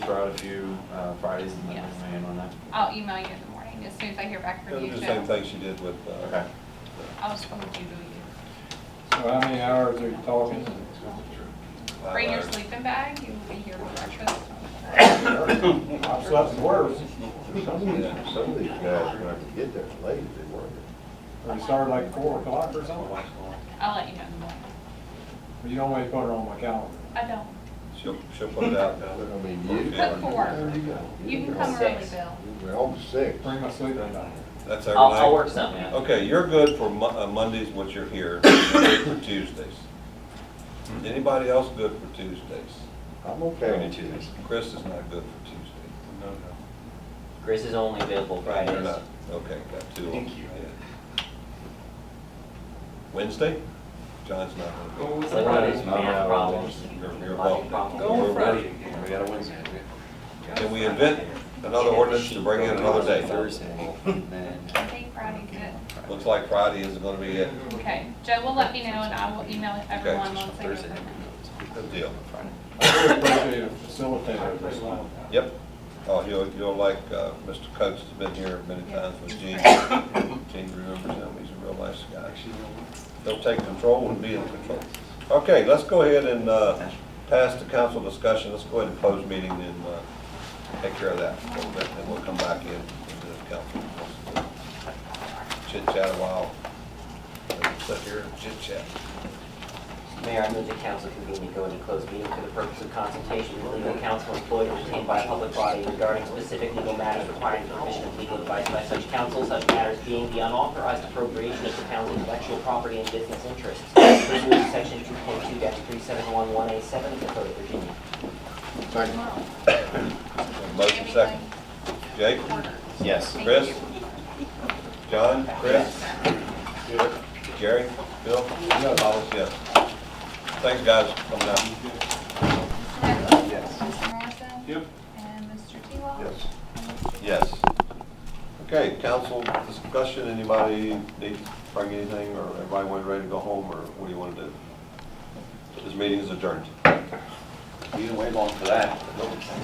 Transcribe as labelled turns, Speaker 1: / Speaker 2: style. Speaker 1: of you uh, Fridays and Mondays,
Speaker 2: Yes.
Speaker 1: ma'am, on that?
Speaker 2: I'll email you in the morning as soon as I hear back
Speaker 3: It'll
Speaker 2: from
Speaker 3: do
Speaker 2: you.
Speaker 3: the
Speaker 2: Joe.
Speaker 3: same thing she did with, uh,
Speaker 1: Okay.
Speaker 2: I'll just forward you to
Speaker 4: So how many hours are you talking?
Speaker 2: you.
Speaker 3: uh,
Speaker 2: Bring your sleeping bag, you will be here for breakfast.
Speaker 4: I've slept worse.
Speaker 5: Some of these, some of these guys, when I could get there late, they weren't.
Speaker 4: We started like four o'clock or
Speaker 6: Oh,
Speaker 4: something. Well,
Speaker 2: I'll let you know in the morning.
Speaker 4: you don't always put it on my calendar.
Speaker 2: I don't.
Speaker 3: she'll, she'll put it out.
Speaker 5: But I mean, you.
Speaker 3: Put
Speaker 2: four.
Speaker 5: There you go.
Speaker 2: You can come early,
Speaker 6: Six.
Speaker 2: Bill.
Speaker 5: We're on to six.
Speaker 4: Bring my sleeping bag.
Speaker 3: That's every
Speaker 6: I'll, I'll
Speaker 3: night.
Speaker 6: work something out.
Speaker 3: Okay, you're good for Mon- uh, Mondays, which you're here, you're good for Tuesdays. Anybody else good for Tuesdays?
Speaker 5: I'm
Speaker 1: We're
Speaker 5: okay
Speaker 1: gonna
Speaker 5: on
Speaker 1: do
Speaker 5: Tuesday.
Speaker 1: Tuesdays.
Speaker 3: Chris is not good for Tuesday.
Speaker 1: No, no.
Speaker 6: Chris is only available
Speaker 3: You're
Speaker 6: Fridays.
Speaker 3: not, okay, got two. of them.
Speaker 1: Thank you.
Speaker 3: Yeah. Wednesday? John's not gonna
Speaker 6: It's like one of these math problems.
Speaker 3: You're- you're
Speaker 6: logic
Speaker 3: welcome.
Speaker 6: problems.
Speaker 3: Go on Friday
Speaker 1: again. We got a Wednesday.
Speaker 3: be. Can we invent another ordinance to bring in another day?
Speaker 1: Thursday, and then.
Speaker 2: I think Friday's good.
Speaker 3: Looks like Friday isn't gonna be it.
Speaker 2: Okay, Joe will let me know and I will email everyone once I get
Speaker 1: Thursday.
Speaker 2: them.
Speaker 3: Good deal.
Speaker 4: I really appreciate a facilitator this time.
Speaker 3: Yep. Oh, you'll, you'll like, uh, Mr. Coates has been here many times with Gene. Gene remembers him, he's a real nice guy. They'll take control and be in control. Okay, let's go ahead and, uh, pass the council discussion. Let's go ahead and close meeting and, uh, take care of that a little bit, and we'll come back in into the council. Chit chat a while. Sit here and chit chat.
Speaker 6: Mayor, I move the council convene to go into closed meeting for the purpose of consultation with legal counsel employed or retained by a public body regarding specific legal matters requiring the provision of legal advice by such counsel, such matters being the unauthorized appropriation of the town's intellectual property and business interests. Pursuant to section 2.2-3711A7 of the Code of Virginia.
Speaker 3: Motion second. Jake?
Speaker 1: Yes.
Speaker 3: Chris? John? Chris? Jerry? Bill? Yeah. Hollis, yes. Thanks, guys, for coming out.
Speaker 1: Yes.
Speaker 2: Mr. Morrison?
Speaker 4: Yep.
Speaker 2: And Mr. T-Law?
Speaker 5: Yes.
Speaker 3: Yes. Okay, council discussion, anybody need to bring anything, or everybody went ready to go home, or what do you want to do? This meeting is adjourned.
Speaker 1: You didn't wait long for that.